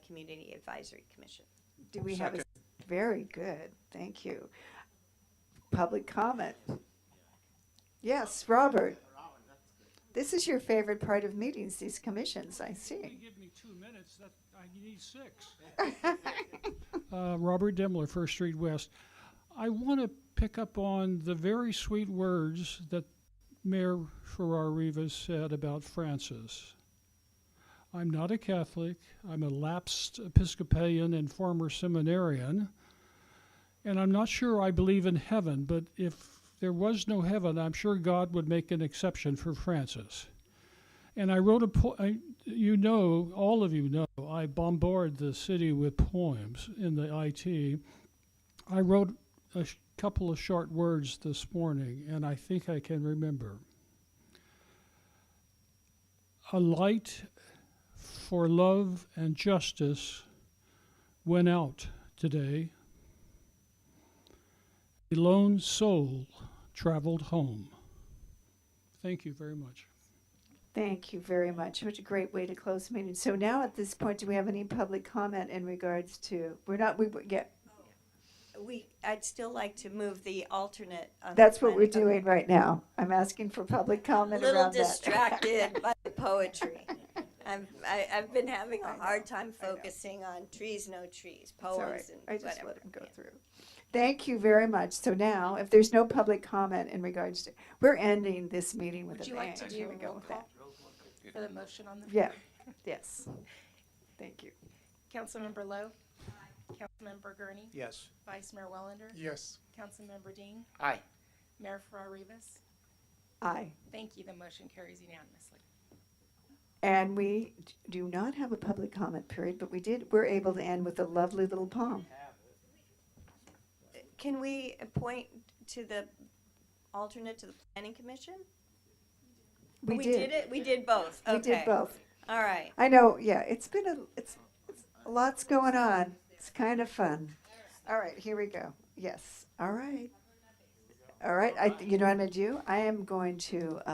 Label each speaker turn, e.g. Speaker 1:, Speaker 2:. Speaker 1: Community Advisory Commission.
Speaker 2: Do we have, a very good, thank you. Public comment? Yes, Robert? This is your favorite part of meetings, these commissions, I
Speaker 3: You
Speaker 2: see.
Speaker 3: give me two minutes, that, I need six. Uh, Robert Demler, First Street West. I want to pick up on the very sweet words that Mayor Farrar Rivas said about Francis. I'm not a Catholic, I'm a lapsed Episcopalian and former seminarian, and I'm not sure I believe in heaven, but if there was no heaven, I'm sure God would make an exception for Francis. And I wrote a po- I, you know, all of you know, I bombard the city with poems in the IT. I wrote a sh- couple of short words this morning, and I think I can remember. A light for love and justice went out today. A lone soul traveled home. Thank you very much.
Speaker 2: Thank you very much. What a great way to close the meeting. So now at this point, do we have any public comment in regards to, we're not, we, yeah,
Speaker 1: We, I'd still like to move the alternate. um, on the
Speaker 2: that's what we're
Speaker 1: planning-
Speaker 2: doing right now. I'm asking for public comment
Speaker 1: little
Speaker 2: around that.
Speaker 1: distracted by the poetry. I'm, I, I've been having
Speaker 2: I
Speaker 1: a
Speaker 2: know,
Speaker 1: hard time
Speaker 2: I know.
Speaker 1: focusing on trees, no trees,
Speaker 2: It's all
Speaker 1: poems
Speaker 2: right. I
Speaker 1: and
Speaker 2: just
Speaker 1: whatever.
Speaker 2: let them go
Speaker 1: Yeah.
Speaker 2: through. Thank you very much. So now, if there's no public comment in regards to, we're ending this meeting with a
Speaker 4: Would
Speaker 2: bang.
Speaker 4: you like to do
Speaker 2: Here
Speaker 4: a
Speaker 2: we go
Speaker 4: roll
Speaker 2: with that.
Speaker 4: call for the motion on the?
Speaker 2: Yeah, yes. Thank you.
Speaker 4: Councilmember Lowe? Councilmember Gurney?
Speaker 5: Yes.
Speaker 4: Vice Mayor Wellender?
Speaker 5: Yes.
Speaker 4: Councilmember Dean?
Speaker 5: Aye.
Speaker 4: Mayor Farrar Rivas?
Speaker 2: Aye.
Speaker 4: Thank you, the motion carries unanimously.
Speaker 2: And we d- do not have a public comment period, but we did, we're able to end with a lovely little poem.
Speaker 1: Can we appoint to the alternate to the planning commission?
Speaker 2: We did.
Speaker 1: it, we did both,
Speaker 2: We
Speaker 1: okay.
Speaker 2: did both.
Speaker 1: All right,
Speaker 2: I know, yeah, it's been a, it's, it's, lots going on. It's kind of fun. All right, here we go. Yes, all right. All right, I, you know what I'm gonna do? I am going to, uh,